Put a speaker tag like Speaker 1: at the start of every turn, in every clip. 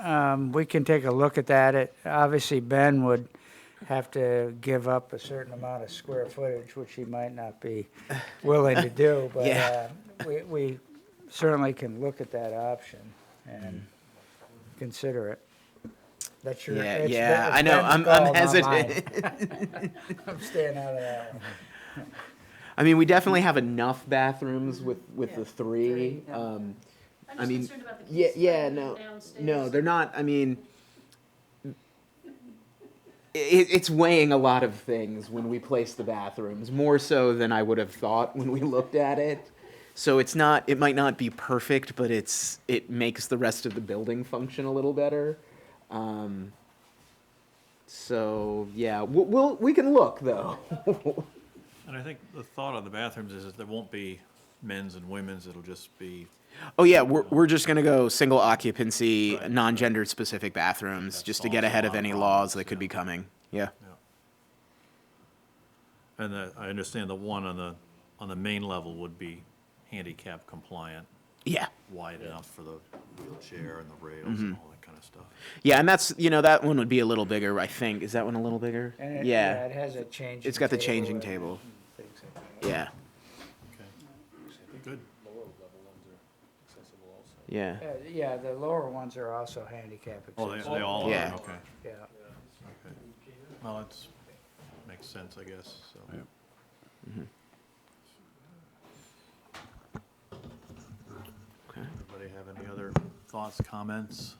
Speaker 1: Um, we can take a look at that. It, obviously, Ben would have to give up a certain amount of square footage, which he might not be willing to do, but, uh,
Speaker 2: Yeah.
Speaker 1: we, we certainly can look at that option and consider it. That's your.
Speaker 2: Yeah,
Speaker 1: it's
Speaker 2: yeah,
Speaker 1: Ben-
Speaker 2: I know.
Speaker 1: Ben's
Speaker 2: I'm,
Speaker 1: call, not
Speaker 2: I'm
Speaker 1: mine.
Speaker 2: hesitant.
Speaker 1: I'm staying out of that one.
Speaker 2: I mean, we definitely have enough bathrooms with with
Speaker 3: Yeah.
Speaker 2: the three.
Speaker 3: Three, yeah.
Speaker 2: Um, I
Speaker 4: I'm just
Speaker 2: mean,
Speaker 4: concerned about the
Speaker 2: yeah,
Speaker 4: kids
Speaker 2: yeah,
Speaker 4: playing
Speaker 2: no,
Speaker 4: downstairs.
Speaker 2: no, they're not. I mean, it, it's weighing a lot of things when we place the bathrooms, more so than I would have thought when we looked at it. So it's not. It might not be perfect, but it's it makes the rest of the building function a little better. Um, so yeah, we'll, we'll we can look though.
Speaker 5: And I think the thought on the bathrooms is that there won't be men's and women's, it'll just be,
Speaker 2: Oh yeah, we're we're just gonna go single occupancy,
Speaker 5: Right.
Speaker 2: non-gendered specific bathrooms,
Speaker 5: That's
Speaker 2: just to get ahead of any
Speaker 5: also
Speaker 2: laws that could be coming. Yeah.
Speaker 5: and the- I understand the one on the, on the main level would be handicap compliant,
Speaker 2: Yeah. Mm-hmm.
Speaker 5: wide enough for the wheelchair and the rails and all that kind of stuff.
Speaker 2: Yeah, and that's you know that one would be a little bigger, I think. Is that one a little bigger?
Speaker 1: And it-
Speaker 2: yeah.
Speaker 1: It has a Eh, changing.
Speaker 2: It's got the
Speaker 1: table
Speaker 2: changing
Speaker 1: and
Speaker 2: table.
Speaker 1: things like that.
Speaker 2: Yeah.
Speaker 5: Good.
Speaker 2: Yeah.
Speaker 1: Uh, Yeah, the lower ones are also handicap
Speaker 5: Oh, they,
Speaker 1: accessible.
Speaker 5: they all are,
Speaker 2: Yeah.
Speaker 5: okay,
Speaker 1: Yeah,
Speaker 5: okay. Well, it's, makes sense, I guess, so.
Speaker 2: Mm-hmm. Okay.
Speaker 5: Everybody have any other thoughts, comments?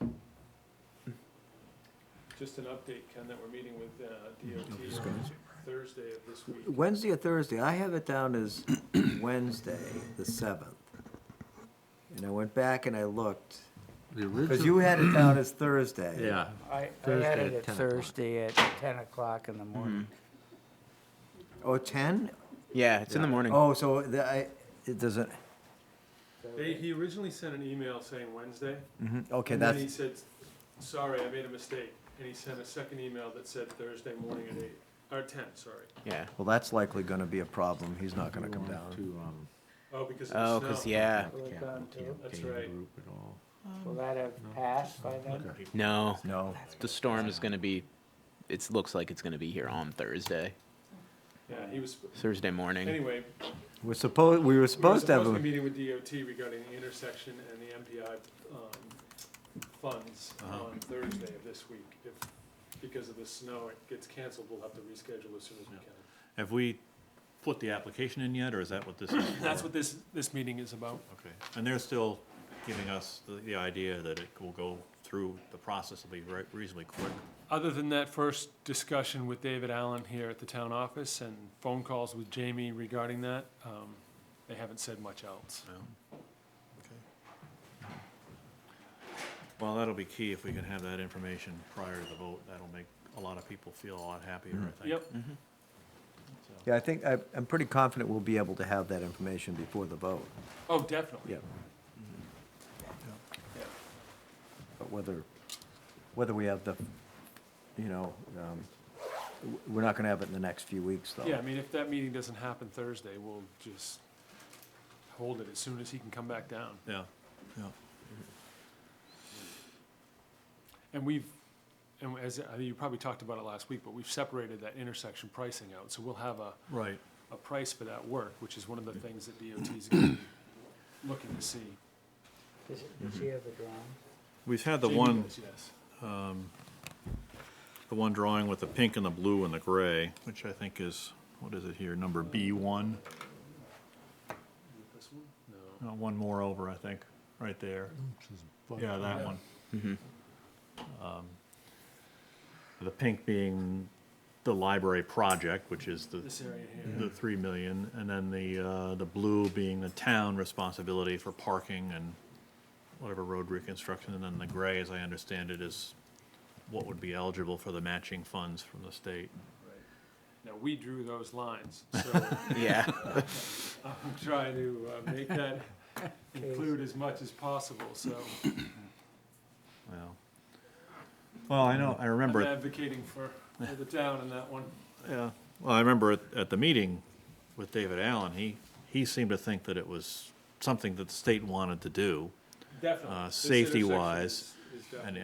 Speaker 6: Just an update, Ken, that we're meeting with uh, DOT on Thursday of this week.
Speaker 7: Wednesday or Thursday, I have it down as Wednesday, the seventh. And I went back and I looked,
Speaker 8: The
Speaker 7: because you
Speaker 8: original,
Speaker 7: had it down as Thursday.
Speaker 5: Yeah,
Speaker 1: I, I
Speaker 8: Thursday
Speaker 1: had
Speaker 8: at
Speaker 1: it at
Speaker 8: 10 o'clock. Mm-hmm.
Speaker 1: Thursday at ten o'clock in the morning.
Speaker 7: Oh, ten?
Speaker 2: Yeah, it's in the morning.
Speaker 7: Oh, so the, I, it doesn't,
Speaker 6: They, he originally sent an email saying Wednesday,
Speaker 7: mhm, okay,
Speaker 6: and then he
Speaker 7: that's,
Speaker 6: said, sorry, I made a mistake, and he sent a second email that said Thursday morning at eight, or ten, sorry.
Speaker 2: Yeah.
Speaker 7: well, that's likely gonna be a problem, he's not gonna come down.
Speaker 6: Oh, because
Speaker 2: Oh,
Speaker 6: of the
Speaker 2: cause
Speaker 6: snow.
Speaker 2: yeah.
Speaker 1: Will it gone too?
Speaker 6: That's right.
Speaker 1: Will that have passed by then?
Speaker 2: No,
Speaker 7: No,
Speaker 2: the storm is gonna be. It looks like it's gonna be here on Thursday,
Speaker 6: Yeah, he was,
Speaker 2: Thursday morning.
Speaker 6: anyway,
Speaker 7: we're supposed, we were
Speaker 6: we were
Speaker 7: supposed to have,
Speaker 6: supposed to be
Speaker 7: a-
Speaker 6: meeting with DOT regarding the intersection and the MPI um, funds on Thursday of this week. If, because of the snow, it gets canceled, we'll have to reschedule as soon as we can.
Speaker 5: have we put the application in yet, or is that what this is?
Speaker 6: That's
Speaker 5: for?
Speaker 6: what this, this meeting is about.
Speaker 5: Okay, and they're still giving us the, the idea that it will go through, the process will be re- reasonably quick.
Speaker 6: Other than that first discussion with David Allen here at the town office and phone calls with Jamie regarding that, um, they haven't said much else.
Speaker 5: Well, that'll be key if we can have that information prior to the vote. That'll make a lot of people feel a lot happier, I think.
Speaker 6: Yep,
Speaker 7: yeah, I think, I, I'm pretty confident we'll be able to have that information before the vote,
Speaker 6: oh, definitely.
Speaker 7: yeah. But whether, whether we have the, you know, um, w- we're not gonna have it in the next few weeks, though.
Speaker 6: Yeah, I mean, if that meeting doesn't happen Thursday, we'll just hold it as soon as he can come back down.
Speaker 5: Yeah, yeah.
Speaker 6: And we've, and as, I mean, you probably talked about it last week, but we've separated that intersection pricing out, so we'll have a,
Speaker 5: Right.
Speaker 6: a price for that work, which is one of the things that DOT is gonna be looking to see.
Speaker 1: Does it- does
Speaker 8: Mm-hmm.
Speaker 1: he have the drawing?
Speaker 5: We've had the
Speaker 6: Jamie
Speaker 5: one,
Speaker 6: does, Yes.
Speaker 5: the one drawing with the pink and the blue and the gray, which I think is, what is it here, number B one?
Speaker 6: This one? No.
Speaker 5: Uh, One more over, I think, right there. Yeah, that one. Um, The pink being the library project, which is the,
Speaker 6: This area
Speaker 5: the
Speaker 6: here.
Speaker 5: three million, and then the, uh, the blue being the town responsibility for parking and whatever road reconstruction, and then the gray, as I understand it, is what would be eligible for the matching funds from the state.
Speaker 6: Now, we drew those lines, so
Speaker 2: Yeah.
Speaker 6: I'm trying to uh, make that include as much as possible, so
Speaker 5: Well, well, I know, I
Speaker 6: I'm
Speaker 5: remember. it-
Speaker 6: advocating for, for the town in that one.
Speaker 5: Yeah, well, I remember at, at the meeting with David Allen, he, he seemed to think that it was something that the state wanted to do.
Speaker 6: Definitely.
Speaker 5: Uh,
Speaker 6: This intersection
Speaker 5: safety-wise,
Speaker 6: is- is
Speaker 5: And,
Speaker 6: definitely-